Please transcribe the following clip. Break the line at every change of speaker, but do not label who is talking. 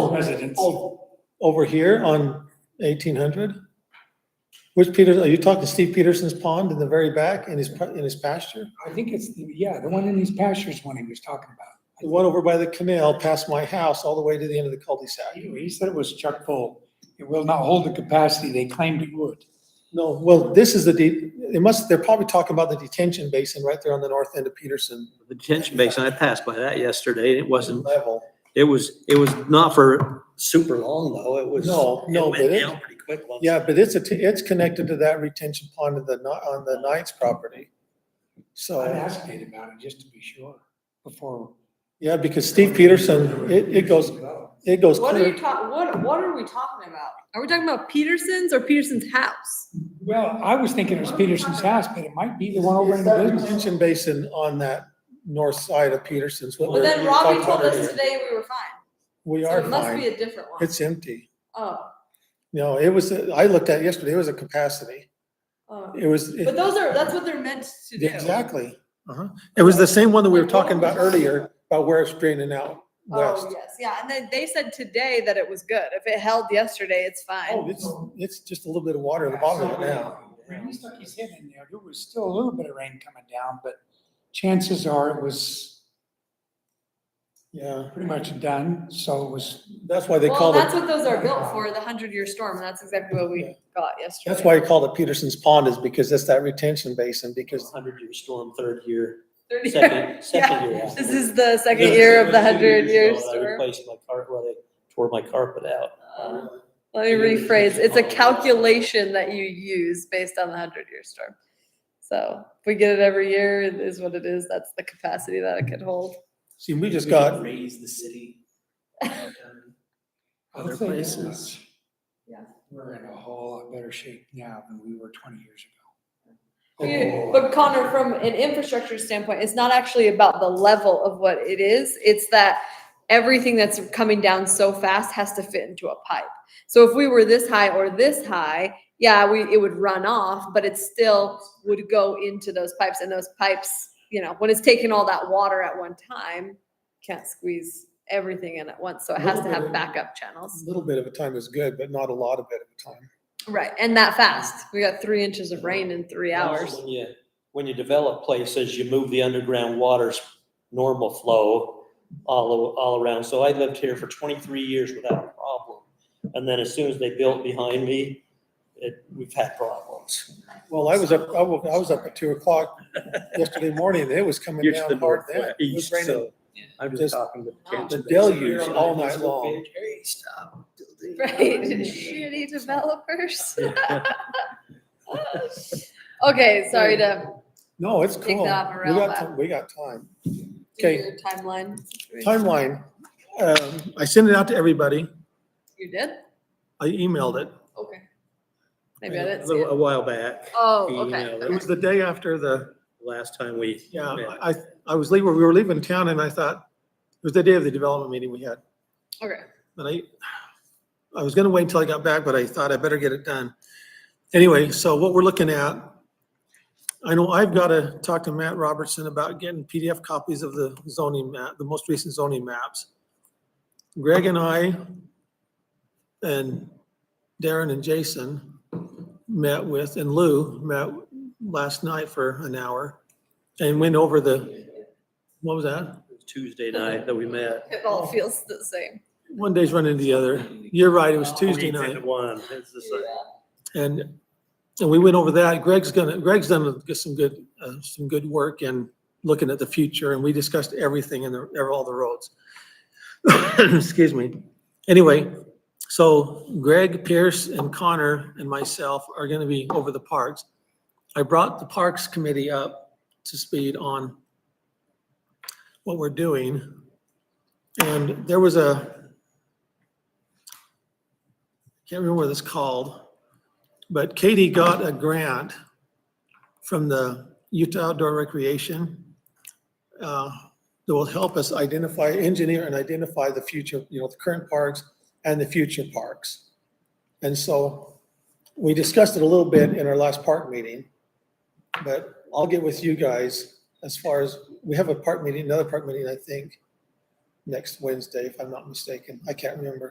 residents.
Oh, Over here on eighteen hundred? Which Peters, are you talking Steve Peterson's pond in the very back in his, pa- in his pasture?
I think it's, the yeah, the one in these pastures one he was talking about.
The one over by the canal past my house all the way to the end of the cul-de-sac?
He he said it was chuck full. It will not hold the capacity they claimed it would.
No, well, this is the, de- they must, they're probably talking about the detention basin right there on the north end of Peterson
The detention basin, I passed by that yesterday. It wasn't,
level.
it was, it was not for super long though. It was.
No, no,
It
but
went
it-
down pretty quick once.
Yeah, but it's a, t- it's connected to that retention pond on the, Kni- on the Knights property.
I
So,
asked Nate about it just to be sure before.
yeah, because Steve Peterson, it, it goes, it goes
What are
clear
you talking, what, what are we talking about? Are we talking about Peterson's or Peterson's house?
Well, I was thinking it was Peterson's house, but it might be the one over
It's
in
that
the business.
retention basin on that north side of Peterson's. what we
But then
were
Robbie
talking
told
about
us
earlier.
today we were fine.
We
So
are
it must be
fine.
a different one.
It's empty.
Oh,
No, it was, I looked at it yesterday, it was a capacity.
oh.
It was. it-
But those are, that's what they're meant to do.
Exactly. Uh-huh. It was the same one that we were talking about earlier, about where it's draining out
Oh,
west.
yes, yeah. And then they said today that it was good. If it held yesterday, it's
Oh,
fine.
it's, it's just a little bit of water at the bottom of it now.
When he stuck his head in there, there was still a little bit of rain coming down, but chances are it was
Yeah,
pretty much done, so it was.
that's why they
Well,
called
that's
it,
what those are built for, the hundred year storm. And that's exactly what we got yesterday.
that's why they called it Peterson's Pond is because it's that retention basin because
Hundred year storm, third year,
30 year-
second, second year.
This
after.
is the second
Yeah,
year of the
two
hundred
years
year
ago, I
storm.
Replaced my carpet, well, they tore my carpet out.
Uh, Let me rephrase, it's a calculation that you use based on the hundred year storm. So if we get it every year, it is what it is, that's the capacity that it could hold.
see, we just got,
Raise the city.
I'll
Other
say that
places.
much.
Yeah.
We're in a whole lot better shape now than we were twenty years ago.
But Connor, from an infrastructure standpoint, it's not actually about the level of what it is, it's that everything that's coming down so fast has to fit into a pipe. So if we were this high or this high, yeah, we, it would run off, but it still would go into those pipes and those pipes, you know, when it's taking all that water at one time, can't squeeze everything in at once, so it has to have backup
a
channels.
little bit of a time is good, but not a lot of it at a time.
Right, and that fast, we got three inches of rain in three hours.
When you, when you develop places, you move the underground water's normal flow all, o- all around. So I lived here for twenty-three years without a problem. And then as soon as they built behind me, it, we've had problems.
Well, I was up, I wa- I was up at two o'clock yesterday morning, and it was coming
You're to the
down hard then. It was
northeast,
raining.
so I'm just
Just
talking to.
the
Kansas.
deluge all night long.
Hey, stop.
Right, shitty developers. Okay, sorry to
No, it's
Take
cool. We
that up around
got,
that.
ti- we got time.
do
Okay.
your timeline. situation.
Timeline. Um, I sent it out to everybody.
You did?
I emailed it.
Okay. Maybe I didn't
A
see
little-
it.
A while back,
Oh,
you
okay.
know,
It
okay.
was the day after the,
last time we.
yeah,
met.
I, I was leaving, we were leaving town and I thought, it was the day of the development meeting we had.
Okay.
But I, I was gonna wait until I got back, but I thought I better get it done. Anyway, so what we're looking at, I know I've gotta talk to Matt Robertson about getting PDF copies of the zoning map, the most recent zoning maps. Greg and I and Darren and Jason met with, and Lou met last night for an hour and went over the, what was that?
It was Tuesday night that we met.
It all feels the same.
One day's running the other. You're right, it was Tuesday
28
night.
to One, it's the same.
And, and we went over that. Greg's gonna, Greg's done a- some good, uh, some good work in looking at the future and we discussed everything in the, all the roads. Excuse me. Anyway, so Greg, Pierce and Connor and myself are gonna be over the parks. I brought the Parks Committee up to speed on what we're doing. And there was a, can't remember what it's called, but Katie got a grant from the Utah Outdoor Recreation uh, that will help us identify, engineer and identify the future, you know, the current parks and the future parks. And so we discussed it a little bit in our last park meeting, but I'll get with you guys as far as, we have a park meeting, another park meeting, I think, next Wednesday, if I'm not mistaken. I can't remember.